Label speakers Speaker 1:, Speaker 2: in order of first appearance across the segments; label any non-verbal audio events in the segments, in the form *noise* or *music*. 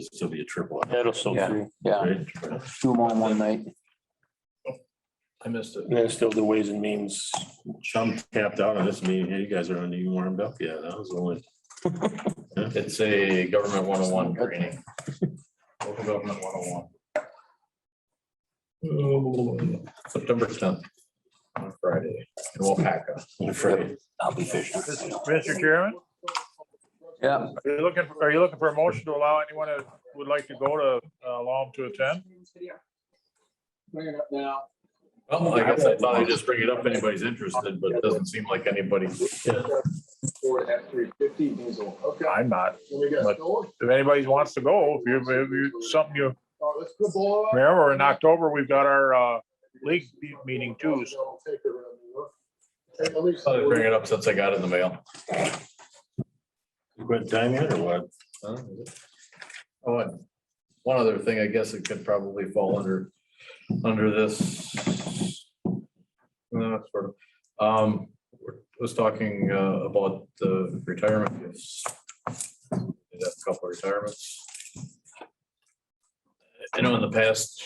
Speaker 1: It'll still be a triple.
Speaker 2: That'll still
Speaker 3: Yeah.
Speaker 2: do.
Speaker 3: Yeah,
Speaker 1: Right?
Speaker 3: do them all in one night.
Speaker 4: I missed it.
Speaker 2: And then still the ways and means.
Speaker 1: Chum tapped out on this meeting. Hey, you guys aren't even warmed up yet. That was only.
Speaker 4: It's a government one oh one training. Local government one oh one. September tenth. On Friday in Wapaka.
Speaker 1: Friday.
Speaker 3: I'll be fishing.
Speaker 5: Mr. Chairman,
Speaker 3: Yeah,
Speaker 5: are you looking, are you looking for a motion to allow anyone who would like to go to, uh, allow them to attend?
Speaker 4: Well, I guess I thought I'd just bring it up. if Anybody's interested, but it doesn't seem like anybody.
Speaker 6: Ford F three fifty diesel. Okay.
Speaker 5: I'm not.
Speaker 6: And we got
Speaker 5: But-
Speaker 6: Ford.
Speaker 5: If anybody wants to go, if you, if you, something you
Speaker 6: Oh, that's good boy.
Speaker 5: remember, in October, we've got our, uh, league meeting too, so
Speaker 6: Don't take her around New York. Hey, let me-
Speaker 4: Thought I'd bring it up since I got it in the mail.
Speaker 1: Quit time yet or what?
Speaker 4: Oh, and one other thing, I guess it could probably fall under, under this. No, sort of, um, was talking uh, about the retirement gifts. Did have a couple retirements. I know in the past,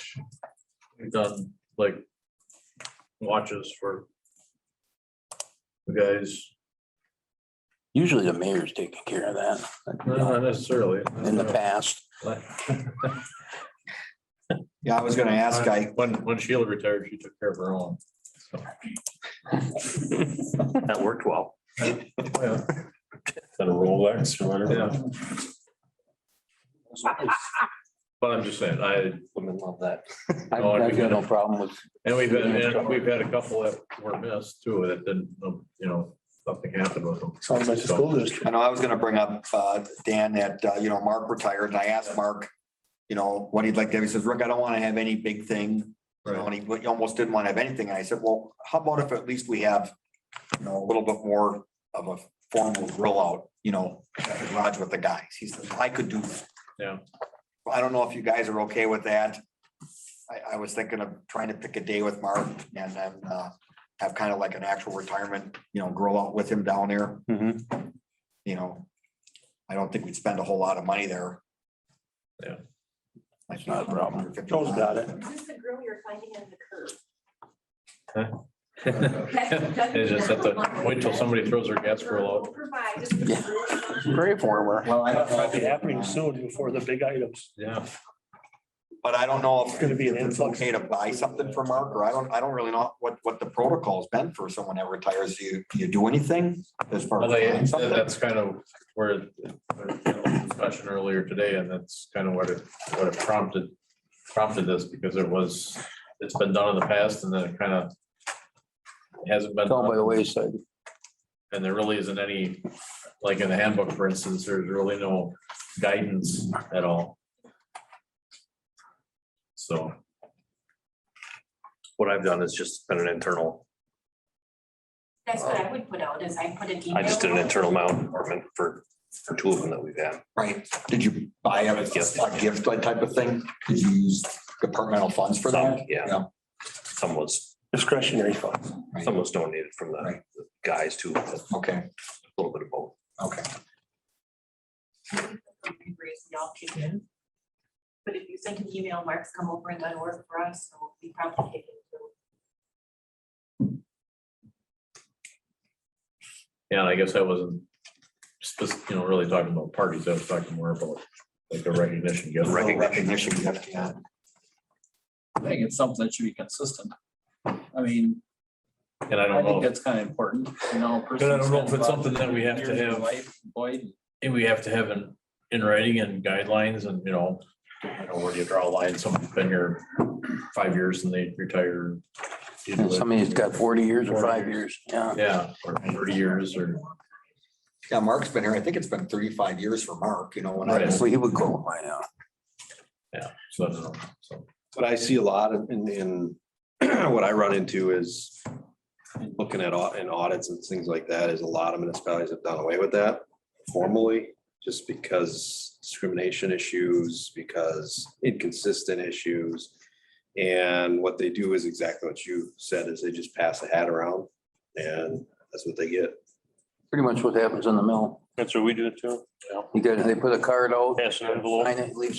Speaker 4: we've done like watches for you guys,
Speaker 3: usually the mayor's taking care of that
Speaker 4: not necessarily.
Speaker 3: in the past.
Speaker 7: Yeah, I was gonna ask, I,
Speaker 4: When, when Sheila retired, she took care of her own.
Speaker 2: That worked well.
Speaker 4: Yeah,
Speaker 1: Got a Rolex or whatever?
Speaker 4: yeah. But I'm just saying, I,
Speaker 2: Women love that.
Speaker 3: I-
Speaker 4: Oh,
Speaker 3: I've got no problem with,
Speaker 4: and we've been, and we've had a couple that were missed too, that didn't, um, you know, something happened with them.
Speaker 2: Sounds like the school district.
Speaker 7: I know I was gonna bring up, uh, Dan, that, uh, you know, Mark retired, and I asked Mark, you know, what he'd like to have, he says, Rick, I don't wanna have any big thing. You know, and he, he almost didn't wanna have anything, and I said, well, how about if at least we have, you know, a little bit more of a formal grill out, you know, at the garage with the guys, he says, I could do. that."
Speaker 4: Yeah.
Speaker 7: I don't know if you guys are okay with that. I, I was thinking of trying to pick a day with Mark and then, uh, have kind of like an actual retirement, you know, grill out with him down there
Speaker 3: Mhm.
Speaker 4: Mm-hmm.
Speaker 7: you know, I don't think we'd spend a whole lot of money there.
Speaker 4: Yeah.
Speaker 7: That's not a problem.
Speaker 2: Joe's got it.
Speaker 8: Is this the grill you're finding in the curb?
Speaker 4: *laughs* They just have to wait till somebody throws their gas grill out.
Speaker 8: We'll provide just the
Speaker 3: Yeah.
Speaker 8: grill.
Speaker 3: pray for him. or-
Speaker 7: Well, I don't
Speaker 2: That'd be
Speaker 7: know.
Speaker 2: happening soon before the big items.
Speaker 4: Yeah.
Speaker 7: But I don't know
Speaker 2: It's
Speaker 7: if
Speaker 2: gonna be an
Speaker 7: it's
Speaker 2: influx.
Speaker 7: okay to buy something for Mark, or I don't, I don't really know what, what the protocol's been for someone that retires. Do you, do you do anything as far
Speaker 4: Well, they-
Speaker 7: as? something?
Speaker 4: That's kind of where the discussion earlier today, and that's kind of what it, what it prompted, prompted this, because it was, it's been done in the past, and then it kind of hasn't been.
Speaker 3: Fell oh, by
Speaker 4: done.
Speaker 3: the wayside.
Speaker 4: And there really isn't any, like in the handbook, for instance, there's really no guidance at all. So.
Speaker 9: what I've done is just been an internal,
Speaker 8: That's what I would put out, is I put an email.
Speaker 9: I just did an
Speaker 8: out.
Speaker 9: internal mount department for, for two of them that we've had.
Speaker 7: Right, did you buy a, a gift type of thing? Did you use departmental funds for
Speaker 9: Some,
Speaker 7: that?
Speaker 9: yeah.
Speaker 7: Yeah.
Speaker 9: Some was,
Speaker 2: Discretionary funds.
Speaker 7: Right.
Speaker 9: some was donated from the
Speaker 7: Right.
Speaker 9: the guys too, a
Speaker 7: Okay,
Speaker 9: little bit of both.
Speaker 7: okay.
Speaker 8: Y'all kick in. But if you send an email, Mark's come over and done work for us, so we probably take it.
Speaker 4: Yeah, and I guess I wasn't, spec- you know, really talking about parties, I was talking more about like a recognition. gift.
Speaker 7: Recognition gift, yeah.
Speaker 10: I think it's something that should be consistent. I mean,
Speaker 4: And I
Speaker 10: I
Speaker 4: don't
Speaker 10: think
Speaker 4: know,
Speaker 10: that's kind of important, you know. a person
Speaker 4: But I don't know if
Speaker 10: spends
Speaker 4: it's
Speaker 10: about
Speaker 4: something that we have to
Speaker 10: years of their
Speaker 4: have.
Speaker 10: life employed.
Speaker 4: if we have to have in, in writing and guidelines and, you know, you know, where do you draw a line? Someone's been here five years and they retire.
Speaker 3: And Somebody's got forty years or five years, yeah.
Speaker 4: Yeah, or thirty years or.
Speaker 7: Yeah, Mark's been here, I think it's been thirty-five years for Mark, you know, when I
Speaker 4: Right.
Speaker 7: was
Speaker 3: So he would go by now.
Speaker 4: Yeah, so I don't know. So
Speaker 11: What I see a lot of- in, in, *clears throat* what I run into is looking at au- in audits and things like that, is a lot of municipalities have done away with that formally, just because discrimination issues, because inconsistent issues. And what they do is exactly what you said, is they just pass a hat around and that's what they get.
Speaker 3: Pretty much what happens in the mill.
Speaker 2: That's what we do too.
Speaker 3: You got, they put a card out,
Speaker 2: Pass an envelope.
Speaker 3: sign it, leave